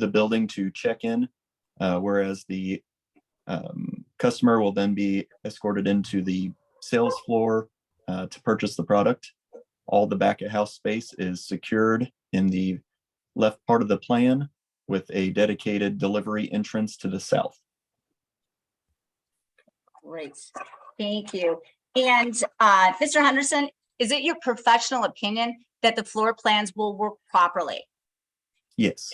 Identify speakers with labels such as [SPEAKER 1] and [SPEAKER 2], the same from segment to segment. [SPEAKER 1] the building to check in, uh, whereas the um, customer will then be escorted into the sales floor uh, to purchase the product. All the back of house space is secured in the left part of the plan with a dedicated delivery entrance to the south.
[SPEAKER 2] Great, thank you. And uh, Mr. Henderson, is it your professional opinion that the floor plans will work properly?
[SPEAKER 1] Yes,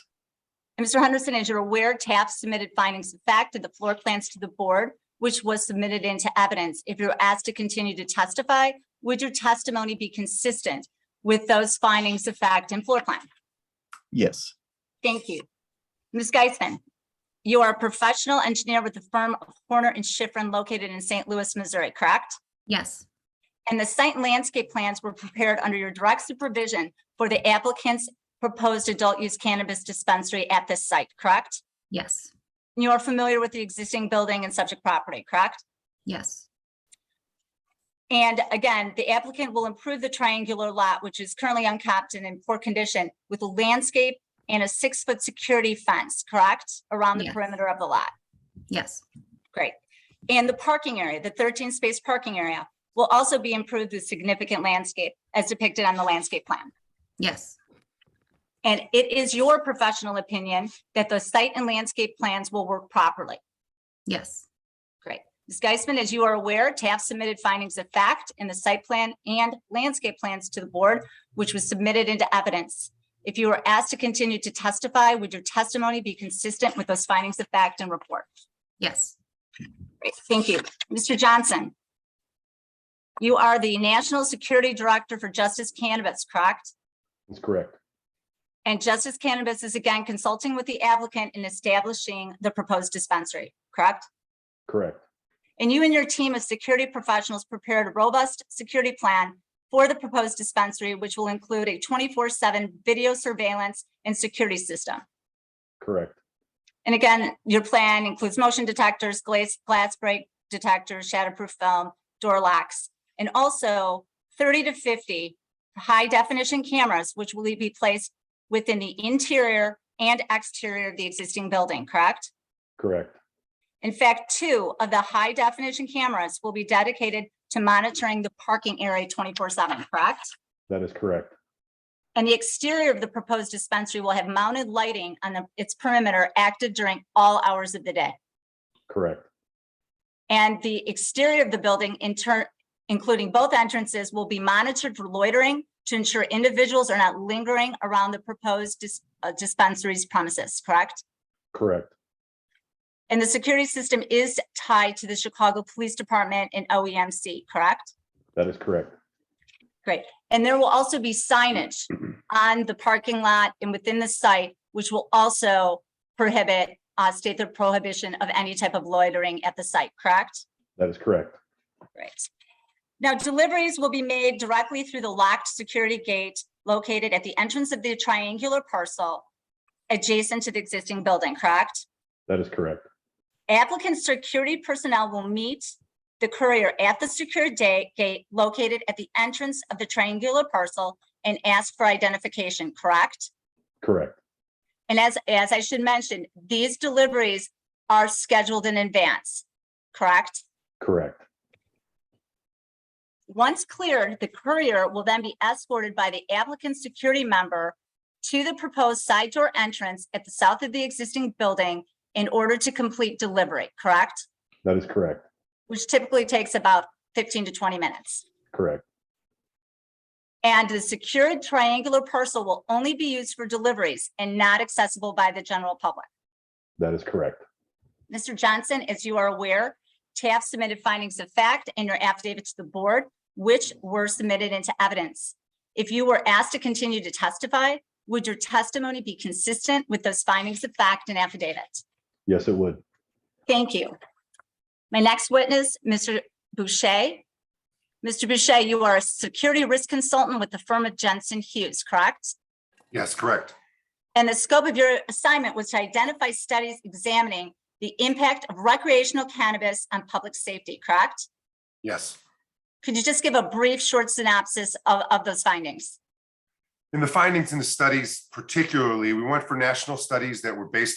[SPEAKER 2] And Mr. Henderson, as you're aware, TAF submitted findings of fact and the floor plans to the board, which was submitted into evidence. If you're asked to continue to testify, would your testimony be consistent with those findings of fact and floor plan?
[SPEAKER 1] yes,
[SPEAKER 2] Thank you. Ms. Geisman, you are a professional engineer with the firm of Horner and Schifrin located in St. Louis, Missouri, correct?
[SPEAKER 3] Yes,
[SPEAKER 2] and the site and landscape plans were prepared under your direct supervision for the applicant's proposed adult-use cannabis dispensary at this site, correct?
[SPEAKER 3] yes,
[SPEAKER 2] You are familiar with the existing building and subject property, correct?
[SPEAKER 3] yes,
[SPEAKER 2] And again, the applicant will improve the triangular lot, which is currently uncapped and in poor condition, with a landscape and a six-foot security fence, correct? Around the
[SPEAKER 3] Yes.
[SPEAKER 2] perimeter of the lot.
[SPEAKER 3] yes,
[SPEAKER 2] Great. And the parking area, the thirteen space parking area, will also be improved with significant landscape as depicted on the landscape plan.
[SPEAKER 3] yes,
[SPEAKER 2] And it is your professional opinion that the site and landscape plans will work properly.
[SPEAKER 3] yes,
[SPEAKER 2] Ms. Geisman, as you are aware, TAF submitted findings of fact in the site plan and landscape plans to the board, which was submitted into evidence. If you were asked to continue to testify, would your testimony be consistent with those findings of fact and report?
[SPEAKER 3] yes,
[SPEAKER 2] Great, thank you. Mr. Johnson? You are the National Security Director for Justice Cannabis, correct?
[SPEAKER 4] That's correct.
[SPEAKER 2] And Justice Cannabis is again consulting with the applicant in establishing the proposed dispensary, correct?
[SPEAKER 4] Correct.
[SPEAKER 2] And you and your team of security professionals prepared a robust security plan for the proposed dispensary, which will include a 24/7 video surveillance and security system.
[SPEAKER 4] Correct.
[SPEAKER 2] And again, your plan includes motion detectors, glass, glass break detectors, shatterproof film, door locks, and also thirty to fifty high definition cameras, which will be placed within the interior and exterior of the existing building, correct?
[SPEAKER 4] Correct.
[SPEAKER 2] In fact, two of the high definition cameras will be dedicated to monitoring the parking area twenty-four seven, correct?
[SPEAKER 4] That is correct.
[SPEAKER 2] And the exterior of the proposed dispensary will have mounted lighting on the- its perimeter active during all hours of the day.
[SPEAKER 4] Correct.
[SPEAKER 2] And the exterior of the building, in turn, including both entrances, will be monitored for loitering to ensure individuals are not lingering around the proposed dis- uh, dispensary's premises, correct?
[SPEAKER 4] Correct.
[SPEAKER 2] And the security system is tied to the Chicago Police Department and OEMC, correct?
[SPEAKER 4] That is correct.
[SPEAKER 2] And there will also be signage on the parking lot and within the site, which will also prohibit, uh, state the prohibition of any type of loitering at the site, correct?
[SPEAKER 4] That is correct.
[SPEAKER 2] Right. Now deliveries will be made directly through the locked security gate located at the entrance of the triangular parcel adjacent to the existing building, correct?
[SPEAKER 4] That is correct.
[SPEAKER 2] Applicant security personnel will meet the courier at the secure day gate located at the entrance of the triangular parcel and ask for identification, correct?
[SPEAKER 4] Correct.
[SPEAKER 2] And as, as I should mention, these deliveries are scheduled in advance, correct?
[SPEAKER 4] Correct.
[SPEAKER 2] Once cleared, the courier will then be escorted by the applicant's security member to the proposed side door entrance at the south of the existing building in order to complete delivery, correct?
[SPEAKER 4] That is correct.
[SPEAKER 2] Which typically takes about 15 to 20 minutes.
[SPEAKER 4] Correct.
[SPEAKER 2] And the secured triangular parcel will only be used for deliveries and not accessible by the general public.
[SPEAKER 4] That is correct.
[SPEAKER 2] Mr. Johnson, as you are aware, TAF submitted findings of fact and your affidavit to the board, which were submitted into evidence. If you were asked to continue to testify, would your testimony be consistent with those findings of fact and affidavit?
[SPEAKER 4] Yes, it would.
[SPEAKER 2] Thank you. My next witness, Mr. Boucher. Mr. Boucher, you are a security risk consultant with the firm of Jensen Hughes, correct?
[SPEAKER 5] Yes, correct.
[SPEAKER 2] And the scope of your assignment was to identify studies examining the impact of recreational cannabis on public safety, correct?
[SPEAKER 5] Yes.
[SPEAKER 2] Could you just give a brief, short synopsis of, of those findings?
[SPEAKER 5] in the findings in the studies particularly, we went for national studies that were based